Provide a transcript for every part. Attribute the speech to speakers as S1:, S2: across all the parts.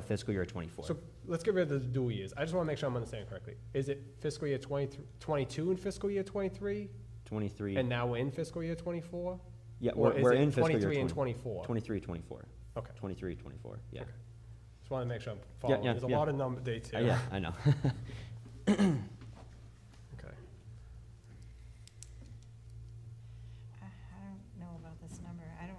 S1: fiscal year '24.
S2: So let's get rid of the dual years. I just want to make sure I'm understanding correctly. Is it fiscal year 23 22 and fiscal year twenty-three? And
S1: '23,
S2: now we're in fiscal year twenty-four?
S1: yeah, we're we're in fiscal year
S2: Twenty-three and
S1: 20
S2: twenty-four?
S1: 23, 24,
S2: Okay,
S1: 23, 24, yeah.
S2: Okay. just want to make sure I'm following.
S1: yeah,
S2: There's a
S1: yeah.
S2: lot of number dates
S1: Uh,
S2: here.
S1: Yeah, I know.
S2: Okay.
S3: I I don't know about this number, I don't.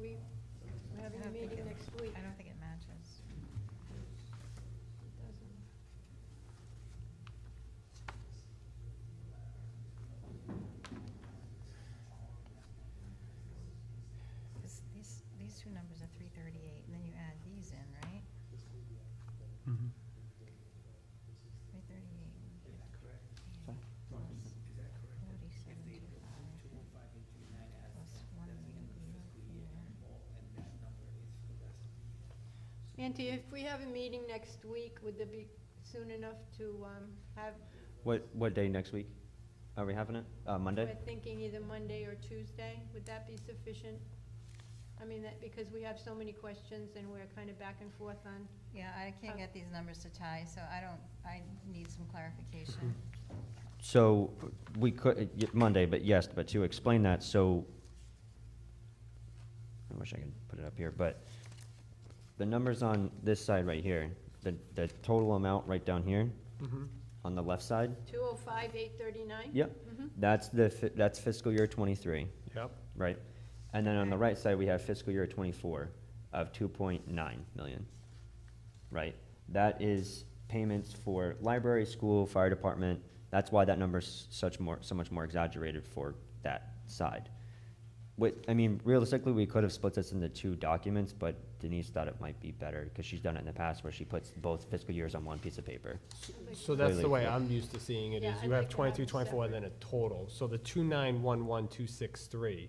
S4: We, we're having
S3: I
S4: a
S3: don't think
S4: meeting
S3: it-
S4: next week.
S3: I don't think it matches.
S4: Doesn't-
S3: This, these, these two numbers are three thirty-eight, and then you add these in, right?
S4: Mm-hmm.
S3: Three thirty-eight. Is that correct? Forty-seven two five. Plus one million here.
S4: Auntie, if we have a meeting next week, would there be soon enough to, um, have,
S1: What, what day next week are we having it? Uh,
S4: we're
S1: Monday?
S4: thinking either Monday or Tuesday, would that be sufficient? I mean, that, because we have so many questions and we're kind of back and forth on,
S3: Yeah, I can't
S4: Oh.
S3: get these numbers to tie, so I don't, I need some clarification.
S1: So we could, uh, y- Monday, but yes, but to explain that, so I wish I could put it up here, but the numbers on this side right here, the, the total amount right down here
S4: Mm-hmm.
S2: Mhm.
S1: on the left side,
S4: two oh five, eight thirty-nine?
S1: yep, that's the, fi- that's fiscal year '23.
S2: Yep.
S1: Right. And then on the
S3: Okay.
S1: right side, we have fiscal year twenty-four of two point nine million. Right? That is payments for library, school, fire department. That's why that number's such more, so much more exaggerated for that side. With, I mean, realistically, we could have split this into two documents, but Denise thought it might be better, because she's done it in the past where she puts both fiscal years on one piece of paper.
S2: So that's the
S1: Completely.
S2: way I'm used to seeing it,
S4: Yeah,
S2: is
S4: I'd
S2: you
S4: like
S2: have
S4: to have
S2: twenty-two,
S4: them
S2: twenty-four, then a total. So the two-nine-one-one-two-six-three,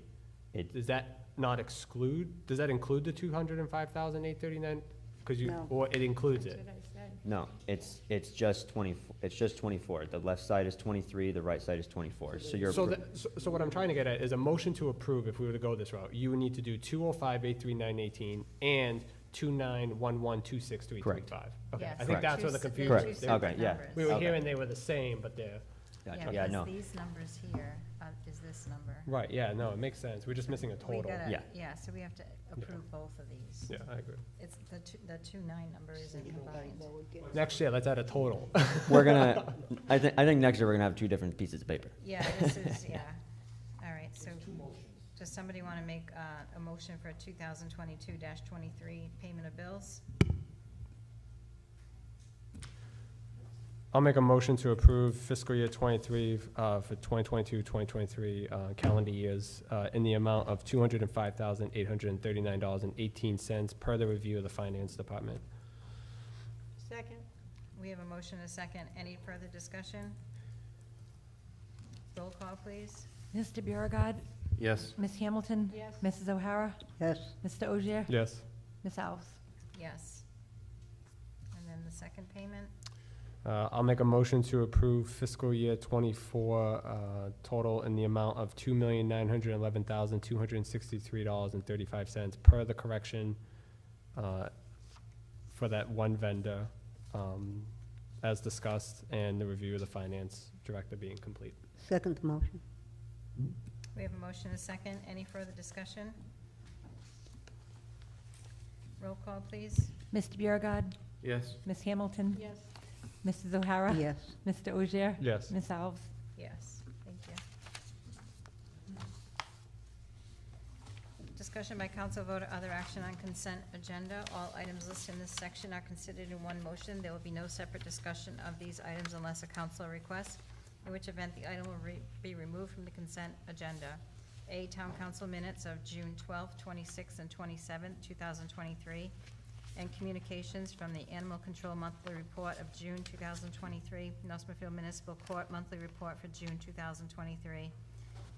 S1: It,
S2: does that not exclude, does that include the two hundred and five thousand, eight thirty-nine? Because you,
S5: No.
S2: or it includes
S4: That's
S2: it?
S4: what I said.
S1: no, it's, it's just twenty-four, it's just twenty-four. The left side is twenty-three, the right side is twenty-four, so you're.
S2: So,
S1: appro-
S2: that, so, so what I'm trying to get at is a motion to approve, if we were to go this route, you would need to do two oh five, eight three nine eighteen, and two nine one one two six three three
S1: Correct.
S2: five. Okay,
S3: Yes,
S2: I
S3: they're
S2: think
S1: Correct.
S2: that's
S3: two
S2: where the
S3: s- they're two
S2: confusion is.
S1: Correct.
S2: They-
S3: separate
S1: Okay, yeah.
S3: numbers.
S2: We were
S1: Okay.
S2: hearing they were the same, but they're,
S1: Gotcha. Yeah,
S3: because
S1: no.
S3: These numbers here uh, is this number.
S2: right, yeah, no, it makes sense, we're just missing a
S3: We
S2: total.
S3: gotta-
S1: Yeah.
S3: Yeah, so we have to approve both of these.
S2: Yeah, I agree.
S3: It's the two, the two nine number isn't combined.
S2: Next year, let's add a total.
S1: We're gonna, I think, I think next year we're gonna have two different pieces of paper.
S3: Yeah, this is, yeah. All right, so does somebody want to make uh, a motion for two thousand twenty-two twenty-three payment of bills?
S2: I'll make a motion to approve fiscal year twenty-three, uh, for 2022-2023 uh, calendar years, uh, in the amount of two hundred and five thousand, eight hundred and thirty-nine dollars and eighteen cents, per the review of the finance department.
S4: Second,
S3: We have a motion and a second. Any further discussion? Roll call, please.
S6: Mr. Biragad.
S7: Yes.
S6: Ms. Hamilton.
S4: yes.
S6: Mrs. O'Hara.
S5: Yes,
S6: Mr. Ogier.
S2: Yes.
S6: Ms. Alves.
S3: Yes. And then the second payment?
S2: Uh, I'll make a motion to approve fiscal year twenty-four, uh, total in the amount of two million nine hundred eleven thousand two hundred and sixty-three dollars and thirty-five cents per the correction, uh, for that one vendor, um, as discussed, and the review of the finance director being complete.
S5: second motion.
S3: We have a motion and a second. Any further discussion? Roll call, please.
S6: Mr. Biragad.
S7: Yes.
S6: Ms. Hamilton.
S4: Yes,
S6: Mrs. O'Hara.
S5: Yes,
S6: Mr. Ogier.
S2: Yes.
S6: Ms. Alves.
S3: Yes, thank you. Discussion by council vote or other action on consent agenda. All items listed in this section are considered in one motion. There will be no separate discussion of these items unless a council requests, in which event the item will re- be removed from the consent agenda. A, town council minutes of June 12th, 26th, and 27th, 2023, and communications from the Animal Control Monthly Report of June 2023, Northmont Municipal Court Monthly Report for June 2023,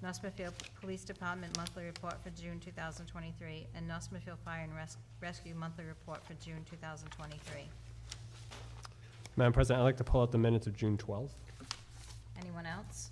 S3: Northmont Police Department Monthly Report for June 2023, and Northmont Fire and Res- Rescue Monthly Report for June 2023.
S2: Madam President, I'd like to pull out the minutes of June twelfth.
S3: Anyone else?